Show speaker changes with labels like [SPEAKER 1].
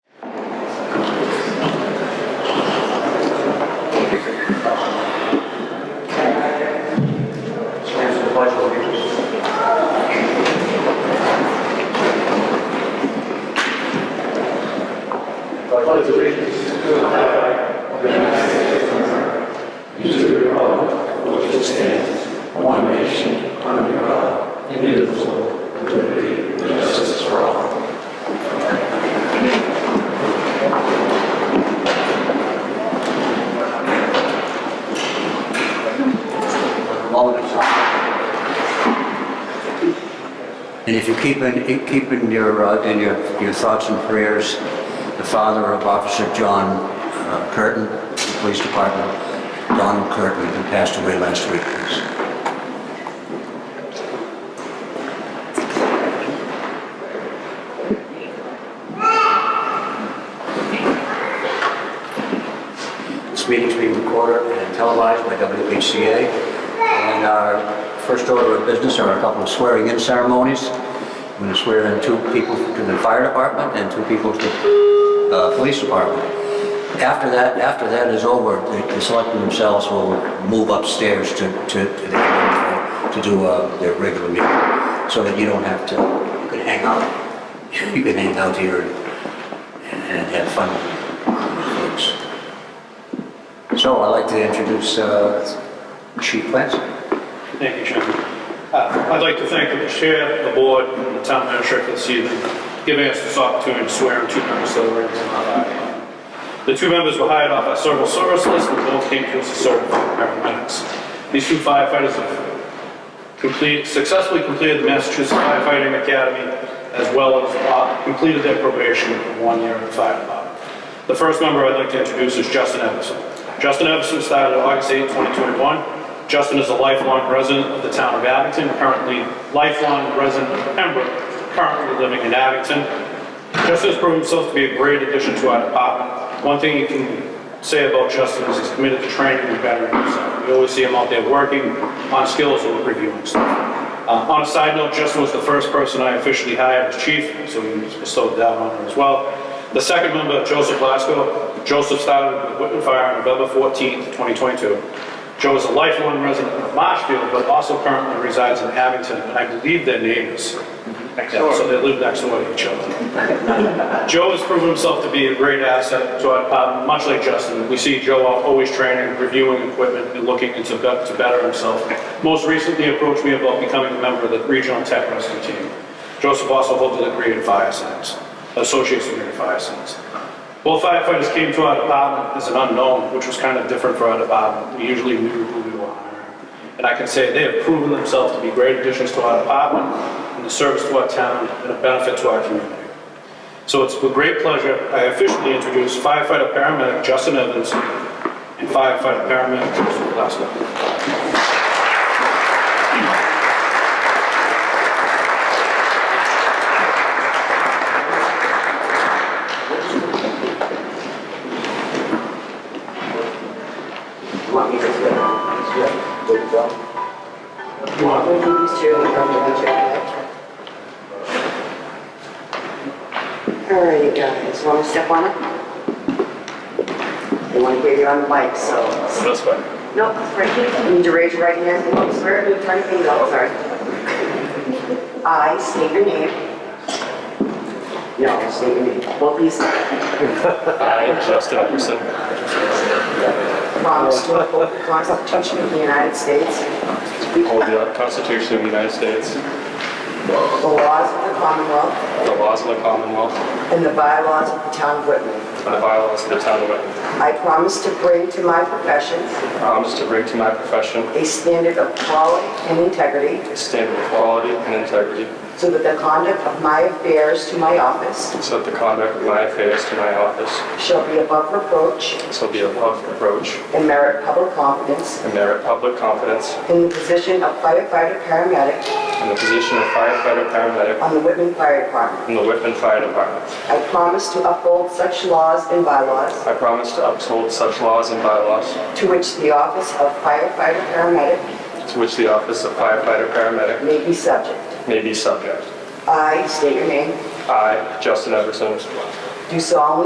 [SPEAKER 1] pledge allegiance to the flag of the United States of America, and to the republic for which it stands, one nation, under God, indivisible, with liberty and justice for all.
[SPEAKER 2] And if you keep in, you keep in your, uh, in your, your thoughts and prayers, the father of Officer John uh, Curtin, the police department, Donald Curtin, who passed away last week. please. This meeting's being recorded and televised by WHCA. And our first order of business are a couple of swearing-in ceremonies. I'm going to swear in two people to the fire department and two people to the uh, police department. After that, after that is over, the the selectmen themselves will move upstairs to, to, to the- to do uh, their regular meeting, so that you don't have to, you can hang out. You can hang out here and and have fun with folks. So I'd like to introduce uh, Chief Clancy.
[SPEAKER 3] Thank you, Chairman. Uh, I'd like to thank the chair, the board, and the town administrator for this evening, giving us this opportunity to swear in two members of the Rangers and Hot The two members were hired off our civil service list and both came to us as certified paramedics. These two firefighters have complete, successfully completed the Massachusetts Firefighting Academy as well as uh, completed their probation for one year in the fire department. The first member I'd like to introduce is Justin Everson. Justin Everson started August 8, 2021. Justin is a lifelong resident of the town of Abington, currently lifelong resident of Pembroke, currently living in Abington. Justin has proven himself to be a great addition to our department. One thing you can say about Justin is he's committed to training and bettering himself. We always see him out there working on skills or reviewing stuff. Uh, On a side note, Justin was the first person I officially hired as chief, so he was bestowed that honor as well. The second member, Joseph Lasco. Joseph started with Whitman Fire on November 14th, 2022. Joe is a lifelong resident of Marshfield, but also currently resides in Abington, and I believe they're neighbors. Yeah, So they live next door to each other. Joe has proven himself to be a great asset to our department, much like Justin. We see Joe always training, reviewing equipment, and looking into be- to better himself. Most recently approached me about becoming a member of the regional tech rescue team. Joseph also holds a degree in fire science, associate's degree in fire science. Both firefighters came to our department as an unknown, which was kind of different for our department. We usually knew who we were hiring. And I can say they have proven themselves to be great additions to our department, and a service to our town, and a benefit to our community. So it's with great pleasure I officially introduce firefighter paramedic Justin Evans and firefighter paramedic Joseph Glasgow. You want
[SPEAKER 4] We'll do these two. All right, you guys, want to step on it? They want to hear you on the mic, so.
[SPEAKER 3] this way?
[SPEAKER 4] Nope, it's right here. You need to raise your right hand. Oh, swear to attorney thing, no, sorry. I state your name. No, state your name. Well, please,
[SPEAKER 3] I, Justin Everson,
[SPEAKER 4] promise to uphold the Constitution of the United States,
[SPEAKER 3] hold the Constitution of the United States,
[SPEAKER 4] the laws of the Commonwealth,
[SPEAKER 3] the laws of the Commonwealth,
[SPEAKER 4] and the bylaws of the town of Whitman.
[SPEAKER 3] and the bylaws of the town of Wetton.
[SPEAKER 4] I promise to bring to my profession
[SPEAKER 3] I promise to bring to my profession
[SPEAKER 4] a standard of quality and integrity
[SPEAKER 3] a standard of quality and integrity,
[SPEAKER 4] so that the conduct of my affairs to my office
[SPEAKER 3] so that the conduct of my affairs to my office
[SPEAKER 4] shall be above reproach
[SPEAKER 3] shall be above reproach
[SPEAKER 4] and merit public confidence
[SPEAKER 3] and merit public confidence
[SPEAKER 4] in the position of firefighter paramedic
[SPEAKER 3] in the position of firefighter paramedic
[SPEAKER 4] on the Whitman Fire Department.
[SPEAKER 3] in the Whitman Fire Department.
[SPEAKER 4] I promise to uphold such laws and bylaws
[SPEAKER 3] I promise to uphold such laws and bylaws
[SPEAKER 4] to which the office of firefighter paramedic
[SPEAKER 3] to which the office of firefighter paramedic
[SPEAKER 4] may be subject.
[SPEAKER 3] may be subject.
[SPEAKER 4] I state your name,
[SPEAKER 3] I, Justin Everson,
[SPEAKER 4] do solemnly